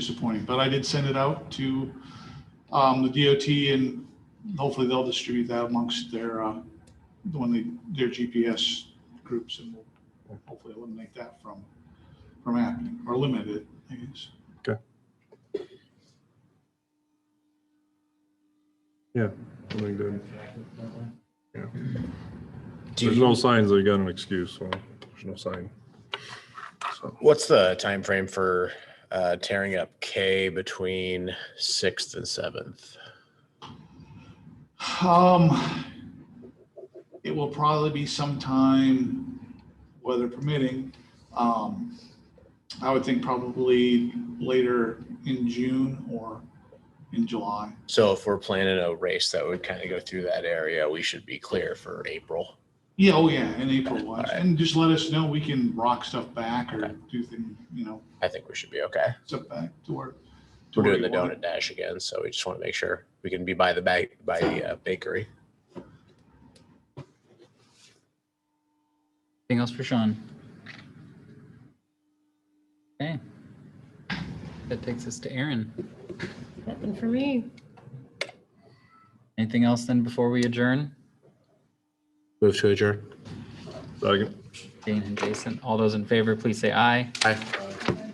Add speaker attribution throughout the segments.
Speaker 1: disappointing, but I did send it out to um, the DOT and hopefully they'll distribute that amongst their, uh, when they, their GPS groups and we'll hopefully eliminate that from, from happening or limit it, I guess.
Speaker 2: I think that-
Speaker 3: Do
Speaker 2: There's
Speaker 3: you-
Speaker 2: no signs, they got an excuse, so there's no sign. So,
Speaker 3: What's the time frame for uh, tearing up K between sixth and seventh?
Speaker 1: Um, it will probably be sometime, weather permitting. Um, I would think probably later in June or in July.
Speaker 3: So if we're planning a race that would kind of go through that area, we should be clear for April.
Speaker 1: Yeah, oh yeah, in April was.
Speaker 3: Alright.
Speaker 1: And just let us know, we can rock stuff back or do things, you know,
Speaker 3: I think we should be okay.
Speaker 1: stuff back to where. to
Speaker 3: We're
Speaker 1: where
Speaker 3: doing
Speaker 1: you
Speaker 3: the
Speaker 1: want it.
Speaker 3: donut dash again, so we just want to make sure we can be by the bag by the uh, bakery.
Speaker 4: Anything else for Sean? Okay. That takes us to Aaron.
Speaker 5: Nothing for me.
Speaker 4: Anything else then before we adjourn?
Speaker 3: Move to adjourn.
Speaker 2: Second.
Speaker 4: Dane and Jason, all those in favor, please say aye.
Speaker 3: Aye.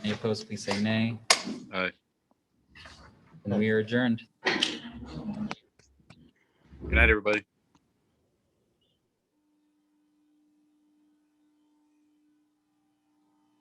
Speaker 4: Any opposed, please say nay.
Speaker 6: Aye.
Speaker 4: And we are adjourned.
Speaker 6: Good night, everybody.